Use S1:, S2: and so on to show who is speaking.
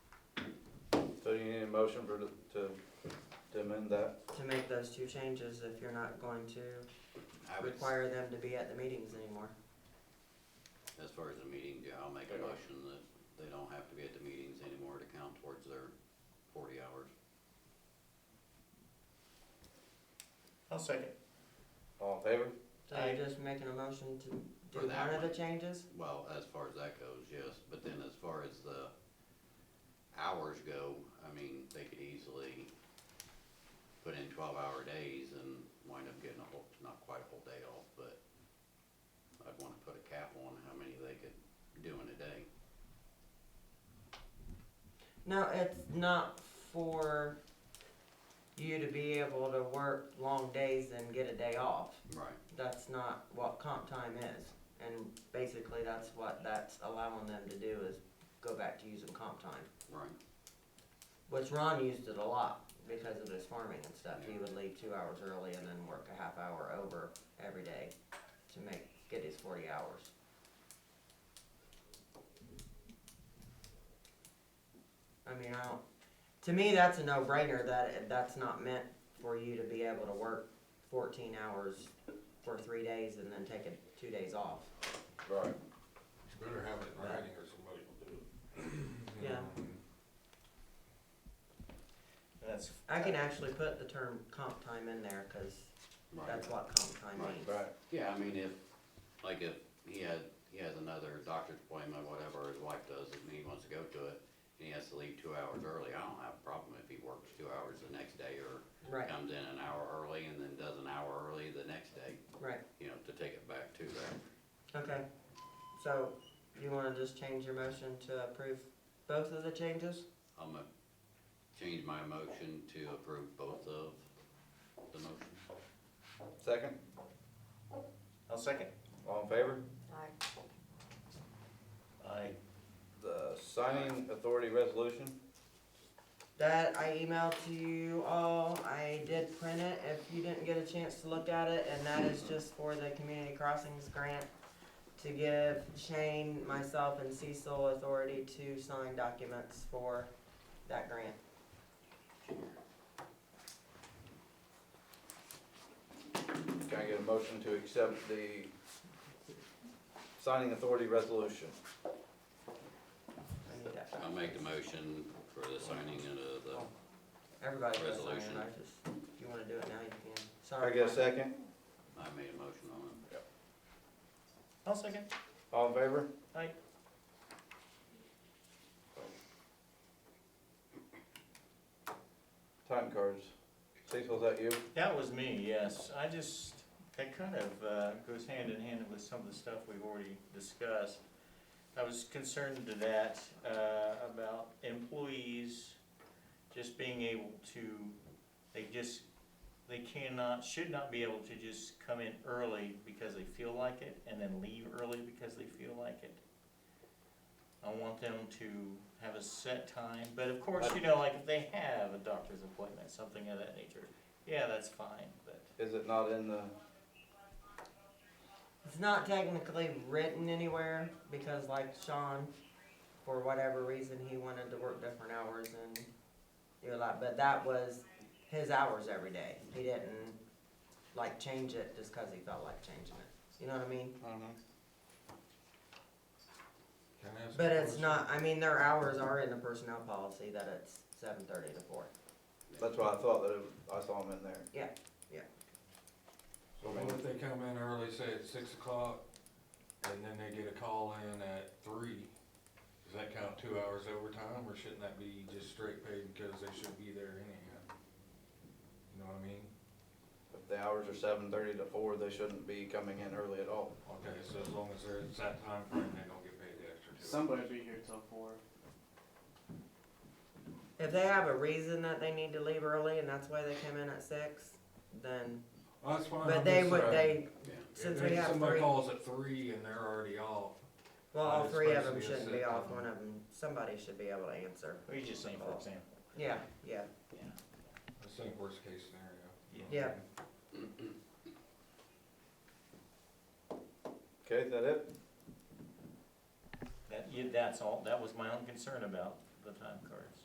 S1: motion for, to, to amend that?
S2: to make those two changes if you're not going to
S3: I would,
S2: require them to be at the meetings anymore.
S3: as far as the meeting, yeah, I'll make a motion that they don't have to be at the meetings anymore to count towards their forty hours.
S4: I'll second.
S1: All in favor?
S2: So you're
S4: Aye.
S2: just making a motion to
S3: For
S2: do
S3: that
S2: one of the
S3: one.
S2: changes?
S3: Well, as far as that goes, yes, but then as far as the hours go, I mean, they could easily put in twelve-hour days and wind up getting a whole, not quite a whole day off, but I'd wanna put a cap on how many they could do in a day.
S2: No, it's not for you to be able to work long days and get a day off.
S3: Right.
S2: That's not what comp time is. And basically, that's what that's allowing them to do is go back to using comp time.
S3: Right,
S2: Which Ron used it a lot because of his farming and stuff. He would leave two hours early and then work a half hour over every day to make, get his forty hours. I mean, I don't, to me, that's a no-brainer that, that's not meant for you to be able to work fourteen hours for three days and then take a, two days off.
S1: Right.
S5: It's better have it in writing or somebody will do it.
S2: Yeah.
S4: That's.
S2: I can actually put the term comp time in there, cause
S3: right.
S2: that's what comp time
S3: Right.
S2: means.
S1: Right.
S3: Yeah, I mean, if, like if he had, he has another doctor's appointment, whatever his wife does, and he wants to go to it, and he has to leave two hours early, I don't have a problem if he works two hours the next day, or
S2: Right,
S3: comes in an hour early and then does an hour early the next day,
S2: right.
S3: you know, to take it back to that.
S2: Okay, so you wanna just change your motion to approve both of the changes?
S3: I'm gonna change my motion to approve both of the motions.
S1: Second?
S4: I'll second.
S1: All in favor?
S4: I.
S1: The signing authority resolution?
S2: That I emailed to you all, I did print it, if you didn't get a chance to look at it, and that is just for the community crossings grant to give Shane, myself, and Cecil authority to sign documents for that grant.
S1: Can I get a motion to accept the signing authority resolution?
S2: I need that back.
S3: I'll make the motion for the signing of the,
S2: Everybody can sign it,
S3: Resolution.
S2: I just, if you wanna do it now, you can,
S1: Can I
S2: sorry.
S1: get a second?
S3: I made a motion on it.
S4: I'll second.
S1: All in favor?
S4: Aye.
S1: Time cards. Cecil, is that you?
S4: That was me, yes. I just, that kind of uh, goes hand in hand with some of the stuff we've already discussed. I was concerned to that, uh, about employees just being able to, they just, they cannot, should not be able to just come in early because they feel like it and then leave early because they feel like it. I want them to have a set time, but of course, you know, like if they have a doctor's appointment, something of that nature, yeah, that's fine, but.
S1: Is it not in the,
S2: It's not technically written anywhere because, like Sean, for whatever reason, he wanted to work different hours and do a lot. But that was his hours every day. He didn't like change it just because he felt like changing it. You know what I mean?
S1: I don't know.
S5: Can I ask a
S2: But it's
S5: question?
S2: not. I mean, their hours are in the personnel policy that it's seven thirty to four.
S1: That's why I thought that it, I saw them in there.
S5: So what if they come in early, say at six o'clock, and then they get a call in at three? Does that count two hours overtime, or shouldn't that be just straight paid because they should be there anyhow? You know what I mean?
S1: If the hours are seven thirty to four, they shouldn't be coming in early at all.
S5: Okay, so as long as they're at that time frame, they don't get paid the extra two.
S6: Somebody'll be here till four.
S2: If they have a reason that they need to leave early and that's why they came in at six, then
S5: Well, that's fine.
S2: but
S5: I'm
S2: they
S5: just
S2: would
S5: saying,
S2: they
S3: Yeah.
S2: since
S5: if
S2: we have
S5: Somebody
S2: three.
S5: calls at three and they're already off.
S2: Well, all
S5: It's
S2: three of them
S5: supposed to be a
S2: shouldn't be
S5: set
S2: off,
S5: time.
S2: one of them, somebody should be able to answer.
S4: What you just saying, for example?
S2: Yeah, yeah.
S5: I think worst case scenario. you know what
S2: Yeah.
S5: I mean?
S1: Okay, is that it?
S4: That, yeah, that's all, that was my own concern about the time cards.